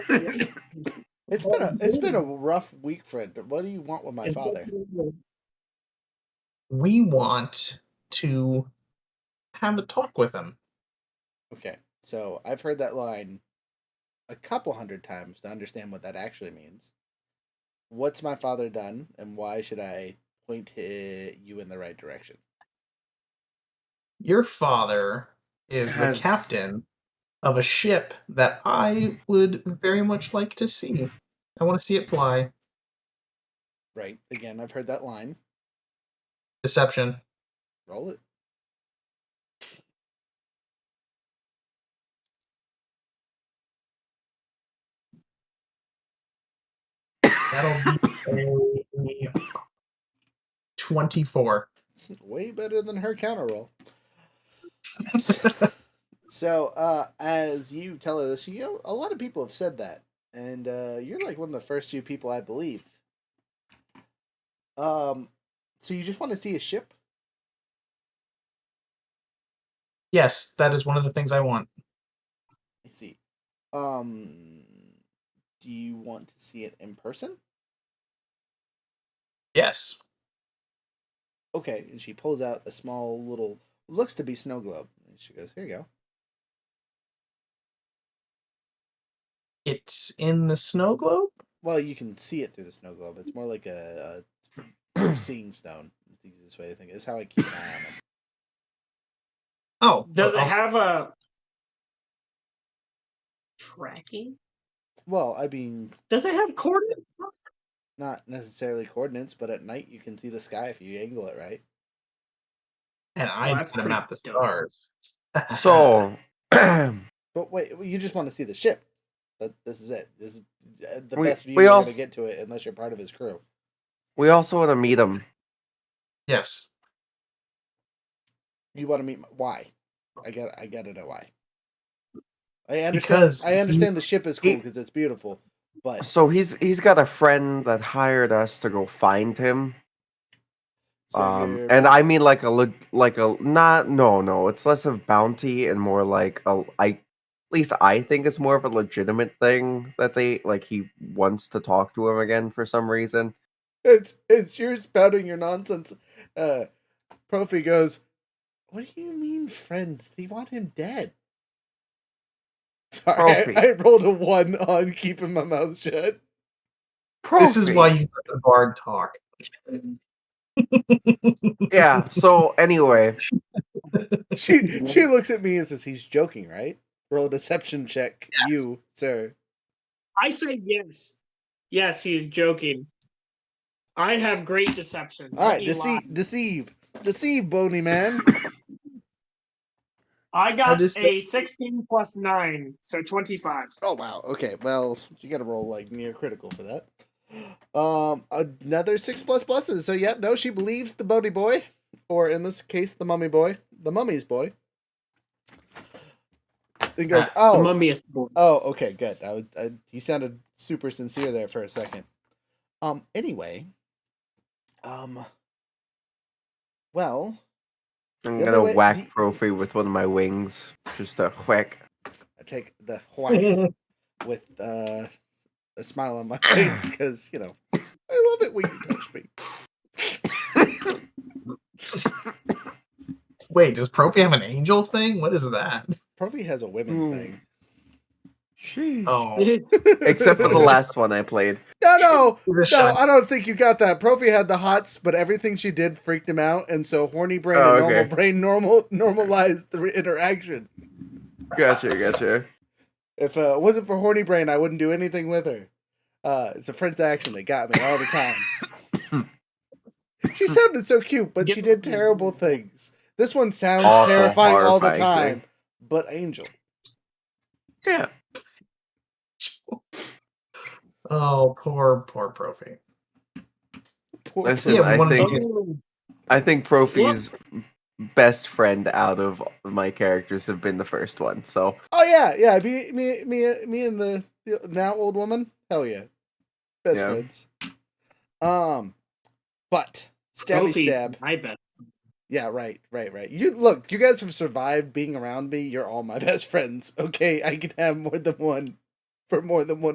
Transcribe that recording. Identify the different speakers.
Speaker 1: Yeah.
Speaker 2: It's been a it's been a rough week, Fred. But what do you want with my father?
Speaker 3: We want to have a talk with him.
Speaker 2: Okay, so I've heard that line a couple hundred times to understand what that actually means. What's my father done, and why should I point hi- you in the right direction?
Speaker 3: Your father is
Speaker 1: Has-
Speaker 3: the captain of a ship that I would very much like to see. I want to see it fly.
Speaker 2: Right. Again, I've heard that line.
Speaker 3: Deception.
Speaker 2: Roll it.
Speaker 3: That'll be a 24.
Speaker 2: Way better than her counter roll. So, uh, as you tell her this, you know, a lot of people have said that, and uh, you're like one of the first few people I believe. Um, so you just want to see a ship?
Speaker 3: yes, that is one of the things I want.
Speaker 2: I see. Um, do you want to see it in person?
Speaker 3: Yes.
Speaker 2: Okay, and she pulls out a small little, looks to be snow globe. And she goes, "Here you go."
Speaker 3: It's in the snow globe?
Speaker 2: Well, you can see it through the snow globe. It's more like a, a seeing stone. It's the easiest way to think. It's how I keep an eye on them.
Speaker 3: Oh.
Speaker 4: Does it
Speaker 3: I'll-
Speaker 4: have a tracking?
Speaker 2: Well, I mean,
Speaker 4: Does it have coordinates?
Speaker 2: not necessarily coordinates, but at night you can see the sky if you angle it right.
Speaker 3: and I
Speaker 4: Well,
Speaker 3: know
Speaker 4: that's
Speaker 3: how to
Speaker 4: pretty
Speaker 3: map the
Speaker 4: dope.
Speaker 3: stars.
Speaker 1: So,
Speaker 2: But wait, you just want to see the ship. That this is it. This is uh, the
Speaker 1: We-
Speaker 2: best view
Speaker 1: we
Speaker 2: you're
Speaker 1: als-
Speaker 2: gonna get to it unless you're part of his crew.
Speaker 1: we also want to meet him.
Speaker 3: yes.
Speaker 2: You want to meet my, why? I got. I gotta know why. I understand.
Speaker 3: Because
Speaker 2: I
Speaker 3: he-
Speaker 2: understand the ship is cool
Speaker 1: he-
Speaker 2: because it's beautiful, but
Speaker 1: So he's he's got a friend that hired us to go find him.
Speaker 2: so
Speaker 1: um,
Speaker 2: you're-
Speaker 1: and I mean like a leg- like a not no no. It's less of bounty and more like a I at least I think it's more of a legitimate thing that they like he wants to talk to him again for some reason.
Speaker 2: it's it's you're spouting your nonsense. Uh, Profi goes. What do you mean, friends? They want him dead. Sorry,
Speaker 1: Profi.
Speaker 2: I, I rolled a one on keeping my mouth shut.
Speaker 3: This is
Speaker 1: Profi.
Speaker 3: why you let the bard talk.
Speaker 1: yeah. So anyway,
Speaker 2: she she looks at me and says, "He's joking, right?" Roll a deception check, you sir.
Speaker 4: I say yes. Yes, he is joking. I have great deception.
Speaker 2: All
Speaker 4: Let
Speaker 2: right, e-
Speaker 4: me lie.
Speaker 2: deceive, deceive, deceive, bony man.
Speaker 4: I
Speaker 3: How
Speaker 4: got
Speaker 3: does that-
Speaker 4: a 16 plus 9, so 25.
Speaker 2: Oh wow. Okay. Well, you got to roll like near critical for that. Um, another six plus pluses. So yep, no, she believes the Bodie boy, or in this case, the mummy boy, the mummy's boy. And goes,
Speaker 3: Ah,
Speaker 4: The
Speaker 2: oh,
Speaker 4: mummy is born.
Speaker 2: Oh, okay, good. I, was, I he sounded super sincere there for a second. Um. Anyway. Um. Well,
Speaker 1: I'm
Speaker 2: The other
Speaker 1: gonna
Speaker 2: way-
Speaker 1: whack
Speaker 2: the-
Speaker 1: Profi with one of my wings. Just a whack.
Speaker 2: I take the whack with uh, a smile on my face because you know I love it when you touch me.
Speaker 3: Wait, does Profi have an angel thing? What is that?
Speaker 2: Profi has a women
Speaker 1: Mm.
Speaker 2: thing.
Speaker 4: It
Speaker 3: Oh,
Speaker 4: is.
Speaker 1: Except for the last one I played.
Speaker 2: No, no,
Speaker 3: the
Speaker 2: no.
Speaker 3: shot.
Speaker 2: I don't think you got that. Profi had the hots, but everything she did freaked him out, and so horny brain
Speaker 1: Oh,
Speaker 2: and normal
Speaker 1: okay.
Speaker 2: brain normal normalized the re- interaction.
Speaker 1: Gotcha, gotcha.
Speaker 2: If uh, it wasn't for Horny Brain, I wouldn't do anything with her. Uh, it's a French accent that got me all the time. she sounded so cute, but she did terrible things. This one sounds
Speaker 1: Awful,
Speaker 2: terrifying all the
Speaker 1: horrifying
Speaker 2: time. But Angel,
Speaker 1: Yeah.
Speaker 3: oh, poor, poor Profi.
Speaker 2: poor
Speaker 1: Listen,
Speaker 2: thing.
Speaker 1: I
Speaker 3: one of
Speaker 1: think-
Speaker 3: those-
Speaker 1: I think Profi's best friend out of my characters have been the first one. So
Speaker 2: Oh yeah, yeah. Me, me, me, me, and the the now old woman. Hell yeah, best
Speaker 1: Yeah.
Speaker 2: friends. Um, but stabby
Speaker 4: Profi,
Speaker 2: stab.
Speaker 4: I bet.
Speaker 2: Yeah, right, right, right. You look, you guys have survived being around me. You're all my best friends. Okay, I can have more than one for more than one